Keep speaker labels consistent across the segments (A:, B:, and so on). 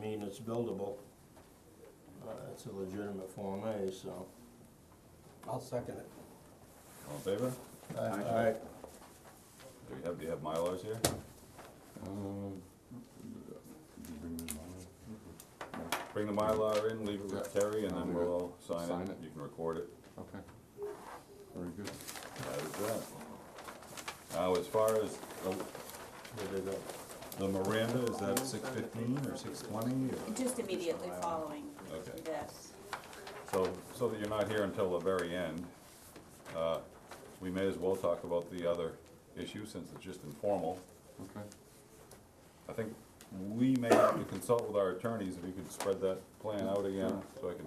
A: mean it's buildable. Uh, It's a legitimate Form A, so.
B: I'll second it.
C: All in favor?
A: Aye.
C: Do you have, do you have Mylars here? Bring the Mylar in, leave it with
D: Yeah.
C: Terry, and
D: I'll
C: then
D: do
C: we'll
D: it.
C: all sign
D: Sign
C: it.
D: it.
C: You can record it.
D: Okay. Very good.
C: That is that. Now, as far as the-
A: Here they go.
C: the Miranda, is that six fifteen or six twenty or?
E: Just immediately following
C: Okay.
E: this.
C: So, so that you're not here until the very end, uh, we may as well talk about the other issue since it's just informal.
D: Okay.
C: I think we may have to consult with our attorneys if you could spread that plan out again, so I can,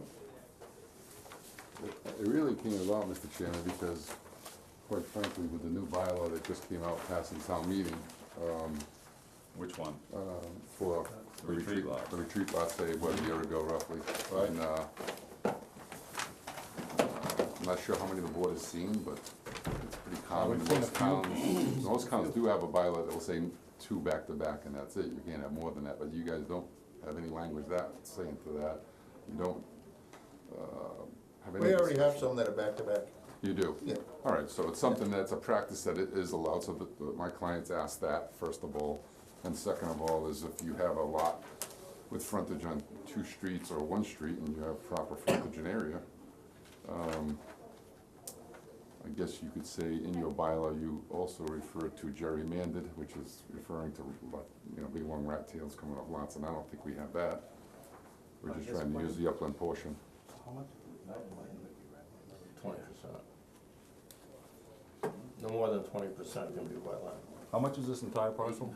D: It really came about, Mr. Chairman, because quite frankly, with the new bylaw that just came out passing town meeting,
C: which one?
D: um, for
C: The
D: the
C: retreat
D: retreat,
C: lot.
D: the retreat lot, say, what, a year ago roughly,
C: Right.
D: and, uh, I'm not sure how many the board has seen, but it's pretty common,
B: seen a
D: most
B: few.
D: towns, most towns do have a bylaw that will say two back-to-back and that's it, you can't have more than that, but you guys don't have any language that, saying to that, you don't, uh, have any.
F: We already have some that are back-to-back.
D: You do?
F: Yeah.
D: All right, so it's something that's a practice that it is allowed, so that- that my clients ask that, first of all. And second of all, is if you have a lot with frontage on two streets or one street and you have proper frontage and area, um, I guess you could say in your bylaw, you also refer to gerrymandered, which is referring to, lot- you know, big long rat tails coming up lots, and I don't think we have that. We're just trying to use the upland portion.
B: How much?
A: Twenty percent. No more than twenty percent can be wetland.
C: How much is this entire parcel?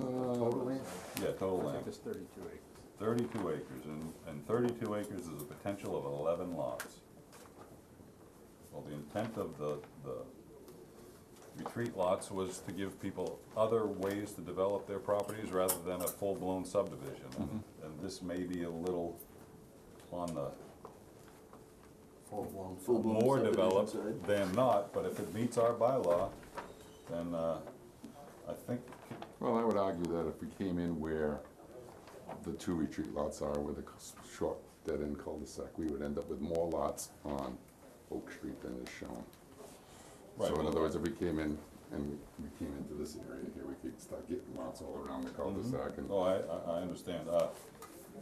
D: Total
C: Yeah, total land,
B: Just thirty-two acres.
C: thirty-two acres, and, and thirty-two acres is a potential of eleven lots. Well, the intent of the, the retreat lots was to give people other ways to develop their properties rather than a full-blown subdivision. And- And this may be a little on the more developed than not, but if it meets our bylaw, then, uh, I think,
D: Well, I would argue that if we came in where the two retreat lots are, with a cus- short dead-end cul-de-sac, we would end up with more lots on Oak Street than is shown.
C: Right,
D: So in
C: well-
D: other words, if we came in and we we came into this area here, we could start getting lots all around the cul-de-sac and,
C: oh, I, I, I understand, uh,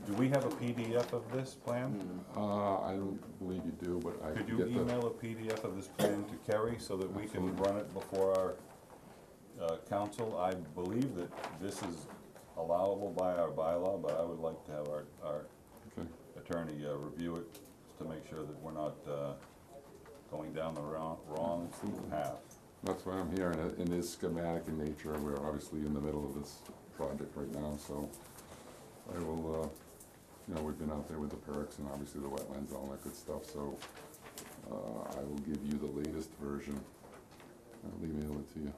C: do we have a PDF of this plan?
D: uh, I don't believe you do, but I
C: Could
D: could
C: you
D: get the,
C: email a PDF of this plan to Kerry so that we can run it before our, uh, council? I believe that this is allowable by our bylaw, but I would like to have our, our
D: okay,
C: attorney, uh, review it to make sure that we're not, uh, going down the wrong, wrong path.
D: that's why I'm here, and it- it is schematic in nature, and we're obviously in the middle of this project right now, so I will, uh, you know, we've been out there with the perks and obviously the wetlands, and all that good stuff, so, uh, I will give you the latest version. I'll email it to you.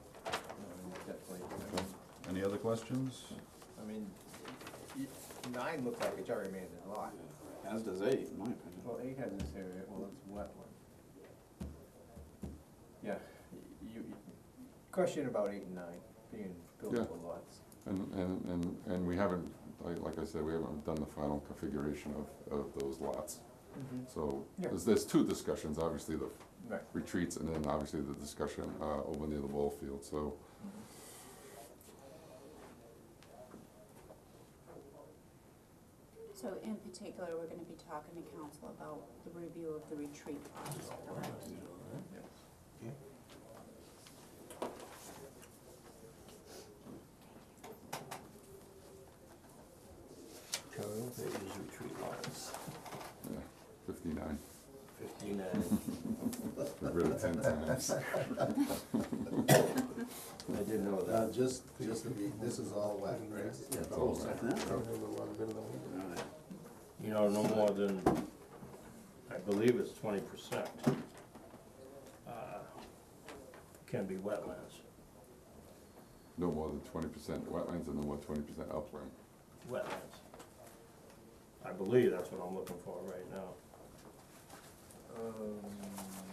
C: Any other questions?
G: I mean, y- nine looks like a gerrymandered lot.
H: As does eight, in my opinion.
G: Well, eight has this area, well, it's wetland. Yeah, y- you, you- question about eight and nine being buildable lots.
D: And, and, and, and we haven't, like, like I said, we haven't done the final configuration of, of those lots.
G: Mm-hmm.
D: So,
G: Yeah.
D: there's, there's two discussions, obviously, the
G: Right,
D: retreats and then obviously the discussion, uh, over near the ball field, so.
E: So in particular, we're gonna be talking to council about the review of the retreat plans, correct?
G: yes.
A: Carry pages retreat lots,
D: Yeah, fifty-nine,
A: fifty-nine.
D: Got rid of ten times.
A: I didn't know
F: Now,
A: that.
F: just, just to be, this is all wet, right?
D: It's all wet.
A: You know, no more than, I believe it's twenty percent, uh, can be wetlands.
D: No more than twenty percent wetlands and no more twenty percent upland.
A: wetlands. I believe that's what I'm looking for right now.
G: Um,